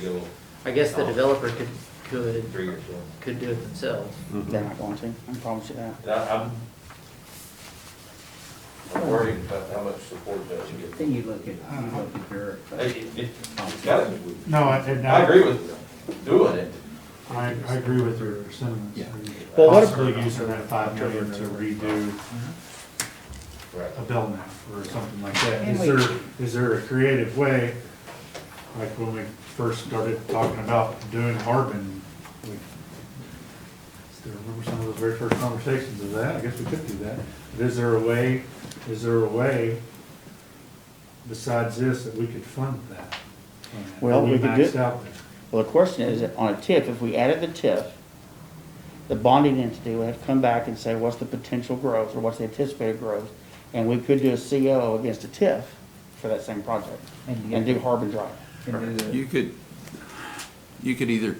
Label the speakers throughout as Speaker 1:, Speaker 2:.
Speaker 1: go
Speaker 2: I guess the developer could, could,
Speaker 1: three years old.
Speaker 2: could do it themselves.
Speaker 3: They're not going to, I can promise you that.
Speaker 1: And I- I'm, I'm worried about how much support that you get.
Speaker 4: Then you look at, you look at your,
Speaker 1: It- it- it's gotta be-
Speaker 5: No, I, and
Speaker 1: I
Speaker 5: I,
Speaker 1: agree with doing it.
Speaker 5: I I agree with your sentiments.
Speaker 4: Yeah.
Speaker 3: Well, what if-
Speaker 5: Possibly using that five million to redo
Speaker 1: Right.
Speaker 5: a bell nap or something like that.
Speaker 4: And
Speaker 5: Is
Speaker 4: we-
Speaker 5: there, is there a creative way, like when we first started talking about doing Harbin, we, still remember some of those very first conversations of that, I guess we could do that. But is there a way, is there a way besides this that we could fund that?
Speaker 3: Well, we could do-
Speaker 5: Maxed out there.
Speaker 3: Well, the question is, on a TIF, if we added the TIF, the bonding entity would have to come back and say, what's the potential growth, or what's the anticipated growth? And we could do a CO against a TIF for that same project,
Speaker 4: And
Speaker 3: and do Harbin Drive.
Speaker 4: and do the,
Speaker 6: You could, you could either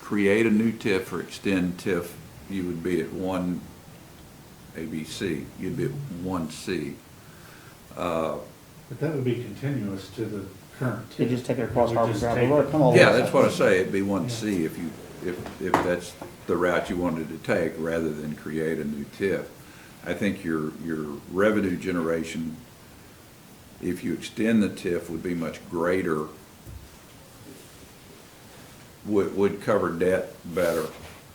Speaker 6: create a new TIF or extend TIF, you would be at one ABC, you'd be at one C. Uh,
Speaker 5: But that would be continuous to the current.
Speaker 3: You just take it across
Speaker 5: We
Speaker 3: Harbin
Speaker 5: just
Speaker 3: Drive,
Speaker 5: take
Speaker 3: Well,
Speaker 5: it.
Speaker 3: come all the way.
Speaker 6: Yeah, that's what I say, it'd be one C if you, if, if that's the route you wanted to take, rather than create a new TIF. I think your, your revenue generation, if you extend the TIF, would be much greater, would, would cover debt better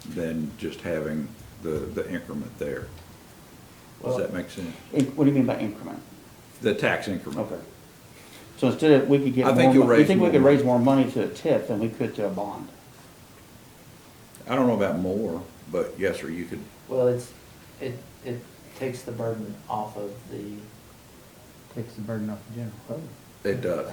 Speaker 6: than just having the, the increment there. Does that make sense?
Speaker 3: In- What do you mean by increment?
Speaker 6: The tax increment.
Speaker 3: Okay. So instead of, we could get
Speaker 6: I
Speaker 3: more,
Speaker 6: think you'll
Speaker 3: mon- you
Speaker 6: raise
Speaker 3: think we
Speaker 6: more
Speaker 3: could
Speaker 6: money.
Speaker 3: raise more money to a TIF than we could to a bond?
Speaker 6: I don't know about more, but yes, sir, you could,
Speaker 2: Well, it's, it, it takes the burden off of the,
Speaker 4: takes the burden off the general fund.
Speaker 6: it does.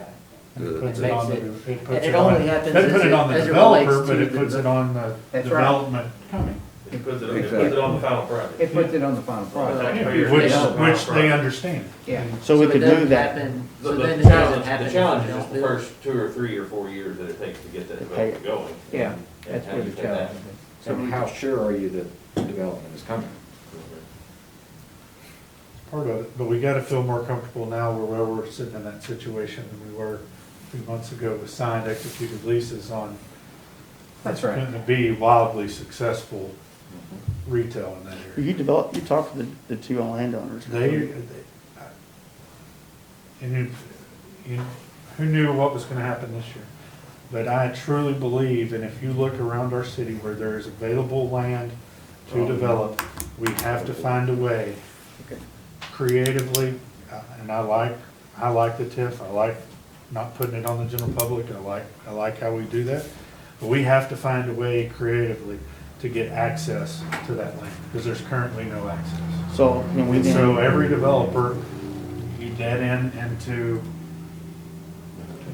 Speaker 5: And
Speaker 6: The-
Speaker 5: it puts
Speaker 6: the-
Speaker 5: it on the,
Speaker 2: Makes it-
Speaker 5: it puts
Speaker 2: and
Speaker 5: it
Speaker 2: it only
Speaker 5: on,
Speaker 2: happens
Speaker 5: they put
Speaker 2: as
Speaker 5: it
Speaker 2: it-
Speaker 5: on the
Speaker 2: as it relates
Speaker 5: developer,
Speaker 2: to
Speaker 5: but it
Speaker 2: the
Speaker 5: puts it on the
Speaker 4: That's right.
Speaker 5: development coming.
Speaker 1: It puts it, on- it puts it on the final product.
Speaker 4: It puts it on the final product.
Speaker 1: Taxpayers
Speaker 5: Which,
Speaker 1: pay on the final
Speaker 5: which they
Speaker 1: product.
Speaker 5: understand.
Speaker 4: Yeah.
Speaker 3: So we
Speaker 2: it
Speaker 3: could do
Speaker 2: doesn't
Speaker 3: that.
Speaker 2: happen-
Speaker 1: The,
Speaker 2: So
Speaker 1: the
Speaker 2: then it doesn't
Speaker 1: challenge,
Speaker 2: happen.
Speaker 1: the
Speaker 2: if you
Speaker 1: challenge is
Speaker 2: don't
Speaker 1: the
Speaker 2: do it.
Speaker 1: first two or three or four years that it takes to get that
Speaker 3: To pay
Speaker 1: development going.
Speaker 4: Yeah,
Speaker 1: and- and
Speaker 4: that's
Speaker 1: how
Speaker 4: where
Speaker 1: you
Speaker 4: the
Speaker 1: get that.
Speaker 4: challenge is.
Speaker 7: So how sure are you that the development is coming?
Speaker 5: Part of it, but we gotta feel more comfortable now where we're sitting in that situation than we were a few months ago with signed executed leases on.
Speaker 4: That's right.
Speaker 5: Going to be wildly successful retail in that area.
Speaker 3: You develop, you talk to the, the two landowners.
Speaker 5: They, they- I- and you, you, who knew what was gonna happen this year? But I truly believe, and if you look around our city where there is available land to develop, we have to find a way creatively, uh, and I like, I like the TIF, I like not putting it on the general public, I like, I like how we do that. But we have to find a way creatively to get access to that land, because there's currently no access.
Speaker 3: So, and we
Speaker 5: And
Speaker 3: then.
Speaker 5: so uh, every developer, you dead end into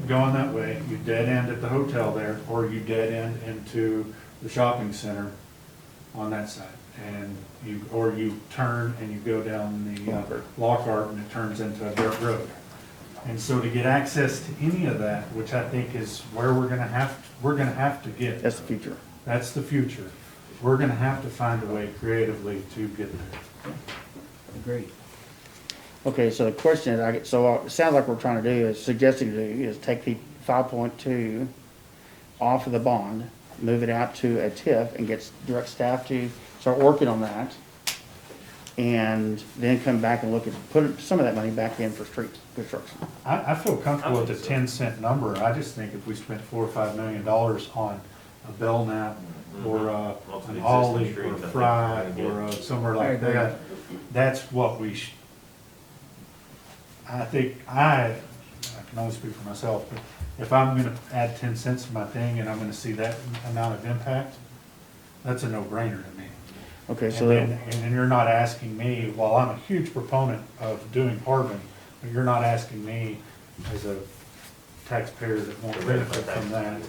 Speaker 5: going that way, you dead end at the hotel there, or you dead end into the shopping center on that side. And you, or you turn and you go down the uh, Lockhart and it turns into a dirt road. And so to get access to any of that, which I think is where we're gonna have, we're gonna have to get.
Speaker 3: That's the future.
Speaker 5: That's the future. We're gonna have to find a way creatively to get there.
Speaker 4: Agreed.
Speaker 3: Okay, so the question is, I get, so uh, it sounds like we're trying to do is suggesting to do is take the five point two off of the bond, move it out to a TIF and get s- direct staff to start working on that. And then come back and look at, put some of that money back in for street construction.
Speaker 5: I, I feel comfortable with the ten cent number, I just think if we spent four or five million dollars on a Bell Nap or a,
Speaker 1: Lots of
Speaker 5: an
Speaker 1: existing
Speaker 5: Ollie
Speaker 1: Mm-hmm.
Speaker 5: or
Speaker 1: streets, I
Speaker 5: a
Speaker 1: think,
Speaker 5: Fry
Speaker 1: yeah.
Speaker 5: or a somewhere
Speaker 4: I
Speaker 5: like
Speaker 4: agree.
Speaker 5: that, that's what we sh I think, I, I can only speak for myself, but if I'm gonna add ten cents to my thing and I'm gonna see that amount of impact, that's a no-brainer to me.
Speaker 3: Okay, so
Speaker 5: And then,
Speaker 3: then,
Speaker 5: and then you're not asking me, while I'm a huge proponent of doing Harbin, but you're not asking me as a taxpayer that won't benefit from that,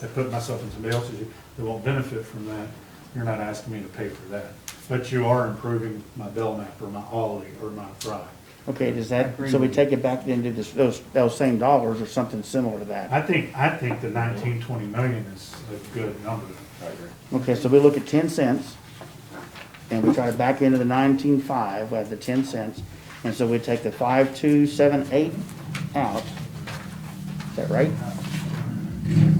Speaker 5: that put myself in somebody else's, shoes, that won't benefit from that, you're not asking me to pay for that. But you are improving my Belknap or my Ollie or my Fry.
Speaker 3: okay, does that, so we take it back then to this, those, those same dollars or something similar to that?
Speaker 5: I think, I think the nineteen, twenty million is a good number.
Speaker 7: I agree.
Speaker 3: Okay, so we look at ten cents, and we try to back into the nineteen-five, we have the ten cents, and so we take the five-two-seven-eight out. Is that right?